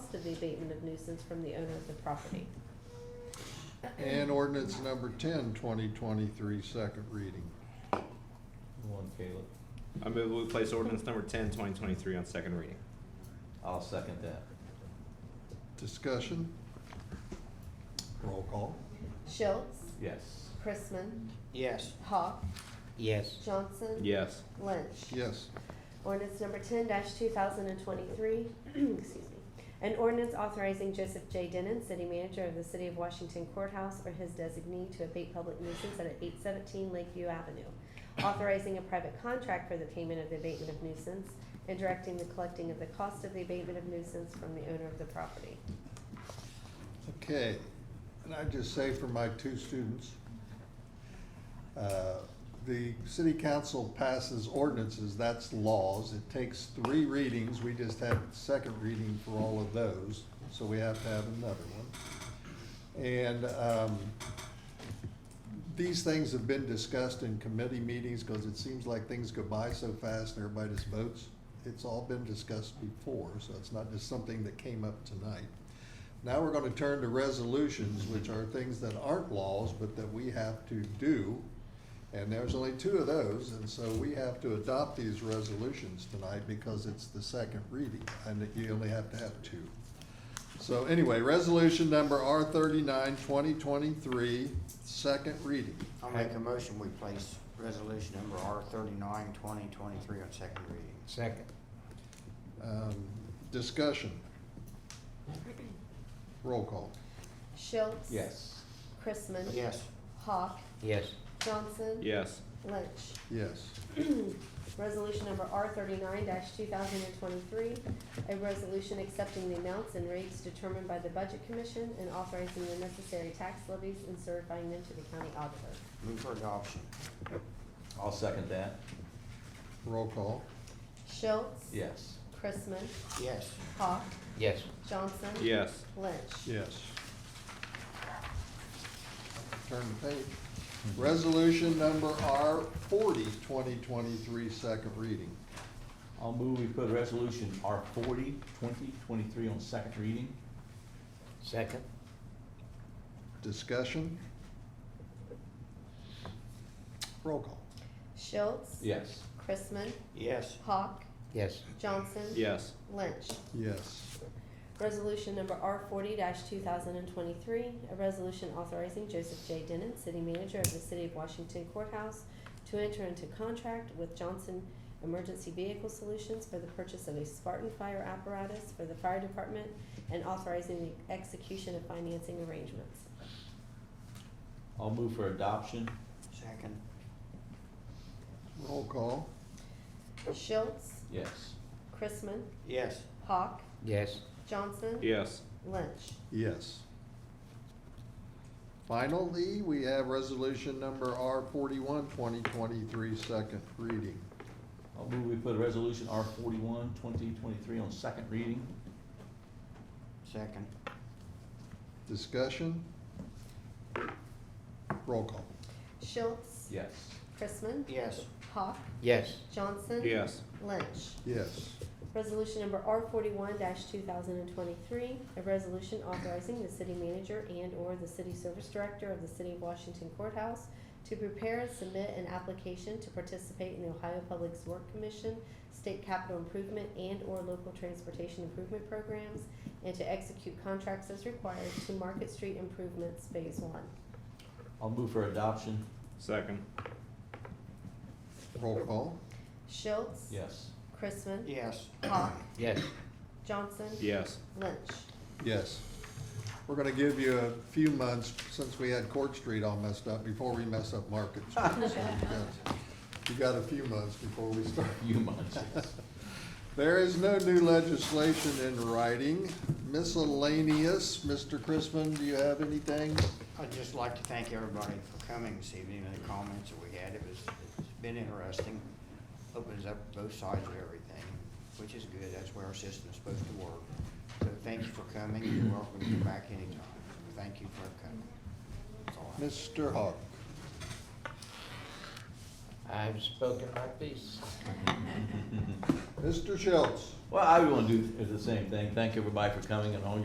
of the abatement of nuisance from the owner of the property. And ordinance number 10, 2023, second reading. One, Caleb. I move we place ordinance number 10, 2023 on second reading. I'll second that. Discussion? Roll call. Schultz, Yes. Chrisman, Yes. Hawk, Yes. Johnson. Yes. Lynch. Yes. Ordinance number ten two thousand and twenty-three, excuse me. An ordinance authorizing Joseph J. Denon, city manager of the city of Washington courthouse or his designee to abate public nuisance at eight seventeen Lakeview Avenue. Authorizing a private contract for the payment of the abatement of nuisance and directing the collecting of the cost of the abatement of nuisance from the owner of the property. Okay, and I just say for my two students, uh, the city council passes ordinances, that's laws. It takes three readings, we just had second reading for all of those, so we have to have another one. And um, these things have been discussed in committee meetings because it seems like things go by so fast and everybody just votes. It's all been discussed before, so it's not just something that came up tonight. Now we're gonna turn to resolutions, which are things that aren't laws, but that we have to do. And there's only two of those, and so we have to adopt these resolutions tonight because it's the second reading, and that you only have to have two. So anyway, resolution number R 39 2023, second reading. I'll make a motion, we place resolution number R thirty-nine, twenty twenty-three on second reading. Second. Um, Discussion. Roll call. Schultz. Yes. Chrisman. Yes. Hawk. Yes. Johnson. Yes. Lynch. Yes. Resolution number R thirty-nine two thousand and twenty-three, a resolution accepting the amounts and rates determined by the Budget Commission and authorizing the necessary tax levies and certifying them to the county auditor. Move for adoption. I'll second that. Roll call. Schultz. Yes. Chrisman. Yes. Hawk. Yes. Johnson. Yes. Lynch. Yes. Turn the page. Resolution number R 40 2023, second reading. I'll move we put resolution R forty, twenty twenty-three on second reading. Second. Discussion? Roll call. Schultz. Yes. Chrisman. Yes. Hawk. Yes. Johnson. Yes. Lynch. Yes. Resolution number R forty two thousand and twenty-three, a resolution authorizing Joseph J. Denon, city manager of the city of Washington courthouse, to enter into contract with Johnson Emergency Vehicle Solutions for the purchase of a Spartan fire apparatus for the fire department and authorizing the execution of financing arrangements. I'll move for adoption. Second. Roll call. Schultz, Yes. Chrisman, Yes. Hawk, Yes. Johnson, Yes. Lynch. Yes. Finally, we have resolution number R 41 2023, second reading. I'll move we put resolution R forty-one, twenty twenty-three on second reading. Second. Discussion? Roll call. Schultz, Yes. Chrisman, Yes. Hawk, Yes. Johnson, Yes. Lynch. Yes. Resolution number R forty-one two thousand and twenty-three, a resolution authorizing the city manager and/or the city service director of the city of Washington courthouse to prepare and submit an application to participate in the Ohio Public Work Commission, state capital improvement and/or local transportation improvement programs, and to execute contracts as required to Market Street improvements phase one. I'll move for adoption. Second. Roll call. Schultz. Yes. Chrisman. Yes. Hawk. Yes. Johnson. Yes. Lynch. Yes. We're gonna give you a few months, since we had Court Street all messed up, before we mess up Market Street. So you got- You got a few months before we start. You munch. Yes. There is no new legislation in writing. Miscellaneous, Mr. Chrisman, do you have anything? I'd just like to thank everybody for coming this evening and the comments that we had. It was, it's been interesting. Opens up both sides of everything, which is good. That's where our system is supposed to work. So thank you for coming. You're welcome to come back anytime. Thank you for coming. That's all I have. Mr. Hawk? I've spoken my piece. Mr. Schultz? Well, I want to do the same thing. Thank everybody for coming and all your